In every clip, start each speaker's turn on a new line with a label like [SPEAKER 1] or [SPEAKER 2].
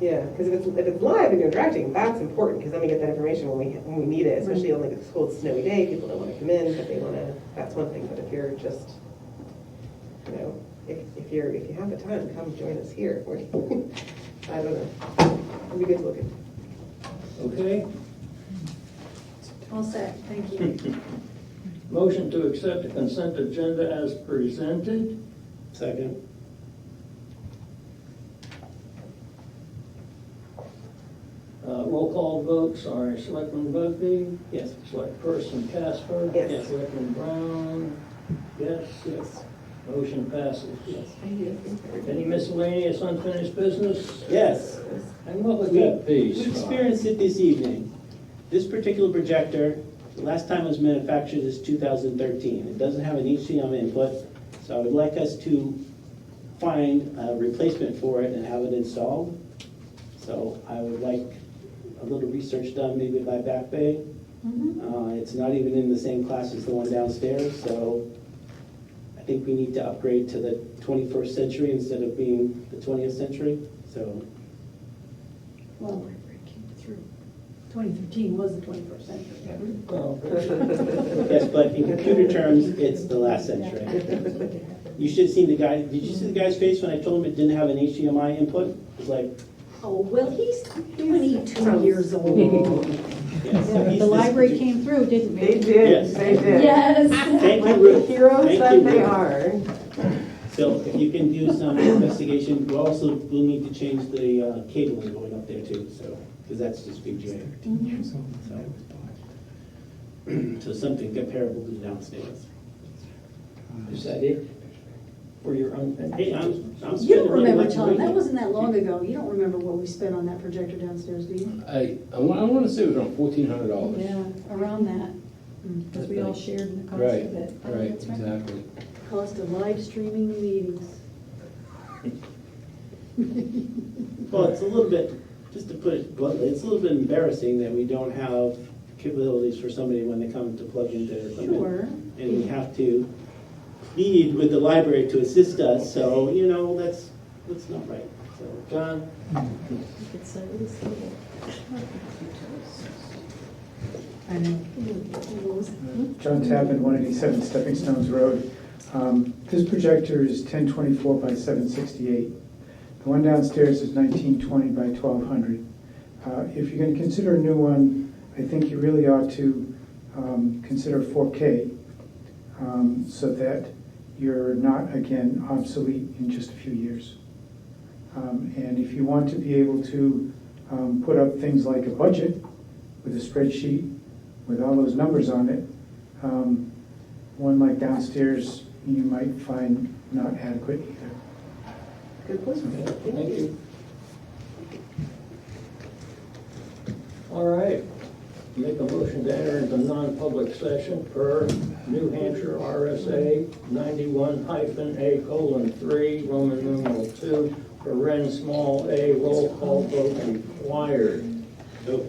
[SPEAKER 1] Yeah, because if it's, if it's live and you're directing, that's important, because then we get that information when we, when we need it, especially on like a cold snowy day, people don't wanna come in, but they wanna, that's one thing, but if you're just, you know, if, if you're, if you have the time, come join us here, or, I don't know, it'd be good to look at.
[SPEAKER 2] Okay,
[SPEAKER 3] All set, thank you.
[SPEAKER 2] motion to accept the consent agenda as presented.
[SPEAKER 4] Second.
[SPEAKER 2] Uh, Roll call vote, sorry, Selectman Bugby?
[SPEAKER 4] Yes.
[SPEAKER 2] Selectperson Casper?
[SPEAKER 1] Yes.
[SPEAKER 2] Selectman Brown? Yes?
[SPEAKER 4] Yes.
[SPEAKER 2] Motion passes.
[SPEAKER 1] I do, I think everybody-
[SPEAKER 2] Any miscellaneous unfinished business?
[SPEAKER 4] Yes.
[SPEAKER 2] And what would
[SPEAKER 4] We-
[SPEAKER 2] that be?
[SPEAKER 4] We
[SPEAKER 2] Scott?
[SPEAKER 4] experienced it this evening. This particular projector, the last time it was manufactured is 2013. It doesn't have an HDMI input, so I would like us to find a replacement for it and have it installed. So I would like a little research done maybe by Back Bay.
[SPEAKER 3] Mhm.
[SPEAKER 4] Uh, It's not even in the same class as the one downstairs, so I think we need to upgrade to the 21st century instead of being the 20th century, so.
[SPEAKER 3] Well, 2013 was the 21st century.
[SPEAKER 2] Well,
[SPEAKER 4] Yes, but in computer terms, it's the last century. You should have seen the guy, did you see the guy's face when I told him it didn't have an HDMI input? It was like,
[SPEAKER 3] Oh, well, he's 22 years old.
[SPEAKER 4] yes. so he's
[SPEAKER 5] The
[SPEAKER 4] this-
[SPEAKER 5] library came through, didn't
[SPEAKER 6] They
[SPEAKER 5] they?
[SPEAKER 4] Yes.
[SPEAKER 6] did, they did.
[SPEAKER 3] Yes.
[SPEAKER 4] Thank
[SPEAKER 6] Like
[SPEAKER 4] you,
[SPEAKER 6] the
[SPEAKER 4] Ruth.
[SPEAKER 6] heroes
[SPEAKER 4] Thank
[SPEAKER 6] that
[SPEAKER 4] you,
[SPEAKER 6] they
[SPEAKER 4] Ruth.
[SPEAKER 6] are.
[SPEAKER 4] So if you can do some investigation, we also will need to change the uh, cabling going up there too, so, because that's just VGA. So- So something comparable to downstairs.
[SPEAKER 2] Is that it for your unfinished?
[SPEAKER 4] Hey, I'm, I'm
[SPEAKER 3] You
[SPEAKER 4] spending
[SPEAKER 3] don't
[SPEAKER 4] money
[SPEAKER 3] remember,
[SPEAKER 4] like a
[SPEAKER 3] Tom, that
[SPEAKER 4] maniac.
[SPEAKER 3] wasn't that long ago. You don't remember what we spent on that projector downstairs, do you?
[SPEAKER 7] I, I want, I want to say it was around fourteen hundred dollars.
[SPEAKER 5] Yeah,
[SPEAKER 3] Around that Hmm,
[SPEAKER 5] because we all shared in the cost
[SPEAKER 7] Right,
[SPEAKER 5] of it.
[SPEAKER 7] right, exactly.
[SPEAKER 3] cost of live streaming meetings.
[SPEAKER 4] Well, it's a little bit, just to put it bluntly, it's a little bit embarrassing that we don't have capabilities for somebody when they come to plug into their equipment.
[SPEAKER 3] Sure.
[SPEAKER 4] And we have to plead with the library to assist us, so, you know, that's, that's not right, so.
[SPEAKER 2] John?
[SPEAKER 8] I know.
[SPEAKER 3] What was it?
[SPEAKER 8] John Tappan, 187 Stepping Stones Road. Um, This projector is 1024 by 768. The one downstairs is 1920 by 1200. Uh, If you're going to consider a new one, I think you really ought to um, consider 4K um, so that you're not, again, obsolete in just a few years. Um, And if you want to be able to um, put up things like a budget with a spreadsheet, with all those numbers on it, um, one like downstairs, you might find not adequate either.
[SPEAKER 1] Good point.
[SPEAKER 2] Thank you. All right, make a motion to enter into non-public session per New Hampshire RSA ninety-one hyphen A colon three, Roman numeral two, for Ren small a, roll call vote required.
[SPEAKER 4] So,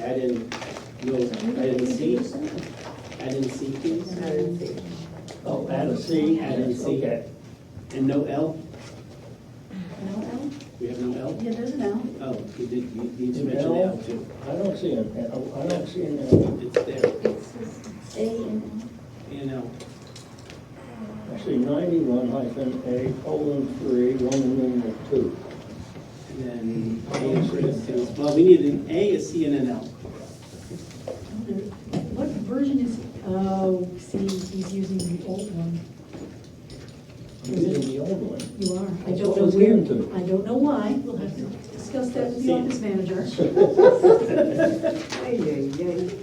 [SPEAKER 4] add in, no, add in C, add in C, please,
[SPEAKER 2] Oh, add a C,
[SPEAKER 4] Add a C.
[SPEAKER 2] Okay.
[SPEAKER 4] and no L?
[SPEAKER 3] No, Al?
[SPEAKER 4] We have no L?
[SPEAKER 3] Yeah, there's an L.
[SPEAKER 4] Oh, you did, you need to mention
[SPEAKER 2] No.
[SPEAKER 4] L too.
[SPEAKER 2] I don't see an, L. I don't see an L.
[SPEAKER 4] It's there,
[SPEAKER 3] A and
[SPEAKER 4] A and L.
[SPEAKER 2] Actually, ninety-one hyphen A colon three, Roman numeral two.
[SPEAKER 4] And then A is for instance, well, we need an A, a C, and an L.
[SPEAKER 5] What version is, oh, see, he's using the old one.
[SPEAKER 2] I'm using the old one.
[SPEAKER 5] You are. I
[SPEAKER 2] That's
[SPEAKER 5] don't
[SPEAKER 2] what
[SPEAKER 5] know
[SPEAKER 2] was
[SPEAKER 5] where,
[SPEAKER 2] given to me.
[SPEAKER 5] I don't know why. We'll have to discuss that with the office manager.
[SPEAKER 1] Ay, ay, ay.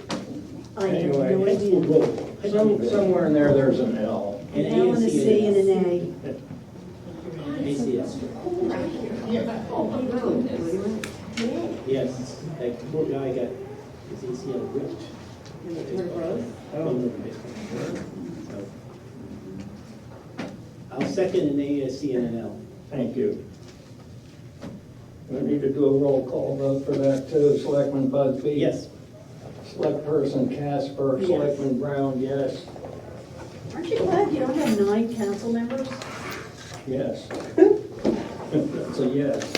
[SPEAKER 3] I have no
[SPEAKER 2] Anyway,
[SPEAKER 3] idea.
[SPEAKER 2] it's- some- somewhere in there, there's an L.
[SPEAKER 3] An
[SPEAKER 4] A
[SPEAKER 3] L and a C and an A.
[SPEAKER 4] A C L. Yes, that poor guy got his ACL ripped. From the baseball. So, I'll second an A, a C, and an L.
[SPEAKER 2] Thank you. We need to do a roll call vote for that too. Selectman Bugby?
[SPEAKER 4] Yes,
[SPEAKER 2] Selectperson Casper?
[SPEAKER 3] Yes.
[SPEAKER 2] Selectman Brown, yes,
[SPEAKER 3] Aren't you glad you don't have nine council members?
[SPEAKER 2] yes. That's a yes.